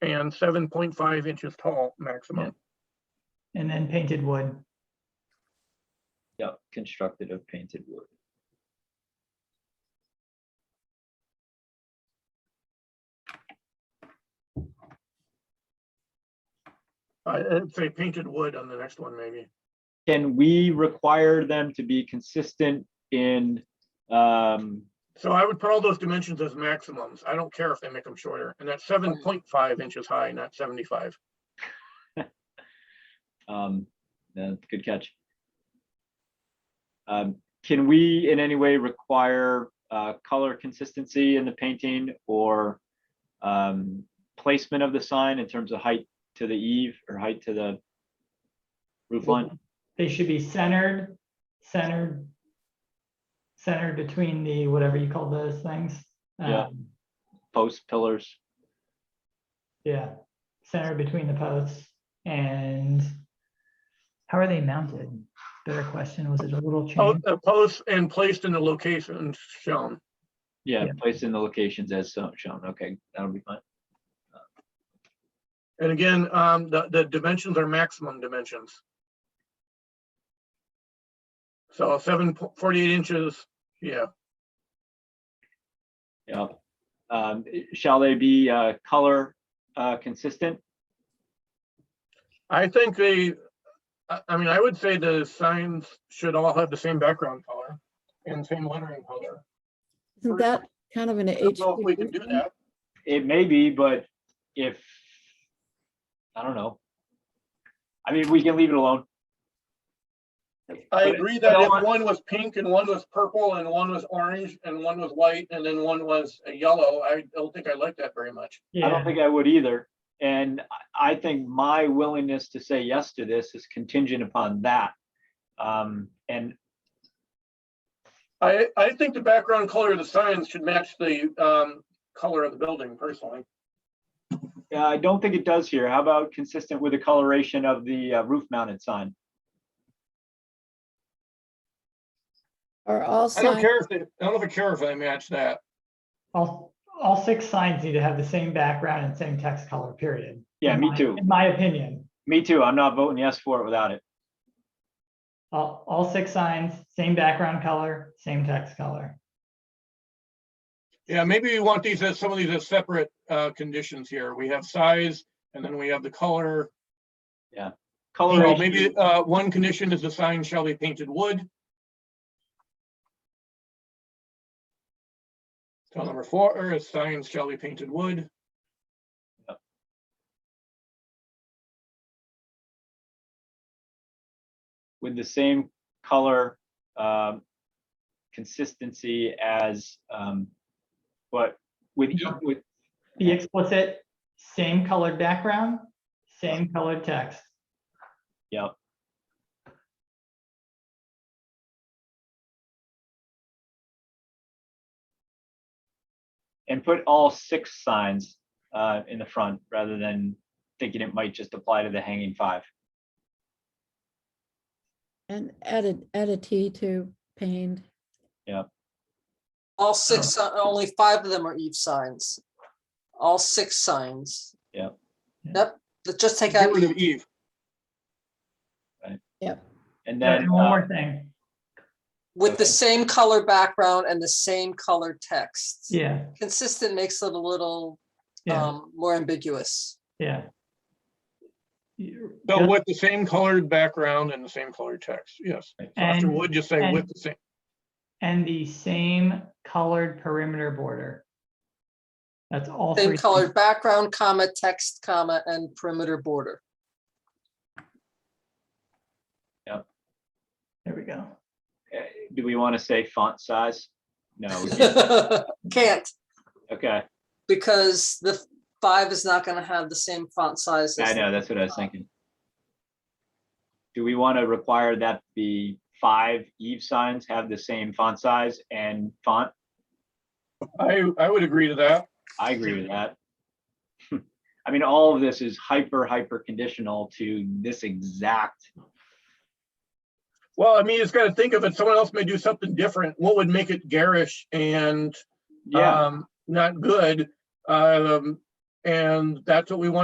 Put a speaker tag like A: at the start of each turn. A: and seven point five inches tall maximum.
B: and then painted wood.
C: Yeah, constructed of painted wood.
A: I- I'd say painted wood on the next one, maybe.
C: Can we require them to be consistent in, um,
A: So I would put all those dimensions as maximums. I don't care if they make them shorter. And that's seven point five inches high, not seventy-five.
C: um, yeah, good catch. Um, can we in any way require, uh, color consistency in the painting or, um, placement of the sign in terms of height to the eave or height to the roof line?
B: They should be centered, centered, centered between the, whatever you call those things.
C: Yeah.
B: Um,
C: posts, pillars?
B: Yeah, centered between the posts and how are they mounted? Better question, was it a
C: Oh,
B: little
A: Po-
B: chain?
A: uh, Posts and placed in the locations shown.
C: Yeah,
B: Yeah.
C: placed in the locations as so- shown. Okay, that'll be fine.
A: And again, um, the, the dimensions are maximum dimensions. So seven, po- 48 inches, yeah,
C: Yeah. Um, i- shall they be, uh, color, uh, consistent?
A: I think they, I, I mean, I would say the signs should all have the same background color and same lettering color.
D: Isn't that kind of an
A: I don't know if we can do
D: HPV?
A: that.
C: It may be, but if, I don't know. I mean, we can leave it alone.
A: I agree that
C: No,
A: if
C: I-
A: one was pink and one was purple and one was orange and one was white and then one was a yellow, I don't think I like that very much.
C: I don't
B: Yeah,
C: think I would either. And I- I think my willingness to say yes to this is contingent upon that. Um, and
A: I, I think the background color of the signs should match the, um, color of the building personally.
C: uh, I don't think it does here. How about consistent with the coloration of the uh, roof mounted sign?
D: Are all
A: I don't
D: signs,
A: care if they, I don't know if I care if I match that.
B: all, all six signs need to have the same background and same text color, period.
C: Yeah,
B: In
C: me
B: my-
C: too.
B: In my opinion,
C: Me too. I'm not voting yes for it without it.
B: all, all six signs, same background color, same text color.
A: Yeah, maybe we want these as, some of these as separate, uh, conditions here. We have size and then we have the color. You know,
C: Coloration.
A: maybe, uh, one condition is the sign shall be painted wood. So number four, is signs shall be painted wood.
C: with the same color um, consistency as um, but with e-
A: Yeah.
C: with
B: Be explicit, same colored background, same colored text.
C: yeah. And put all six signs uh, in the front rather than thinking it might just apply to the hanging five.
D: and add a, add a T to pained.
E: All six, si-
C: Oh.
E: only five of them are Eve signs. All six signs.
C: Yeah.
E: Yep, let's just take
A: Get
E: out,
A: rid of
E: Eve.
A: Eve.
C: And
B: Yeah,
C: then
B: and One
C: uh,
B: more thing,
E: with the same color background and the same color text.
B: yeah,
E: Consistent makes it a little
B: yeah,
E: um more ambiguous.
B: yeah. You-
A: So
B: just-
A: with the same colored background and the same colored text, yes. So After
B: And-
A: wood, just say
B: and-
A: with the same.
B: And the same colored perimeter border. That's all three.
E: Same
B: things.
E: colored background, comma, text, comma, and perimeter border.
B: There we go.
C: eh, do we want to say font size? No. we can't.
E: Can't,
C: Okay.
E: because the five is not gonna have the same font size. as
C: I know, that's what I was thinking. Do we want to require that the five Eve signs have the same font size and font?
A: I, I would agree to that.
C: I agree with that. I mean, all of this is hyper, hyper conditional to this exact,
A: Well, I mean, you just gotta think of it, someone else may do something different, what would make it garish and,
C: yeah.
A: um, not good? Um, and that's what we want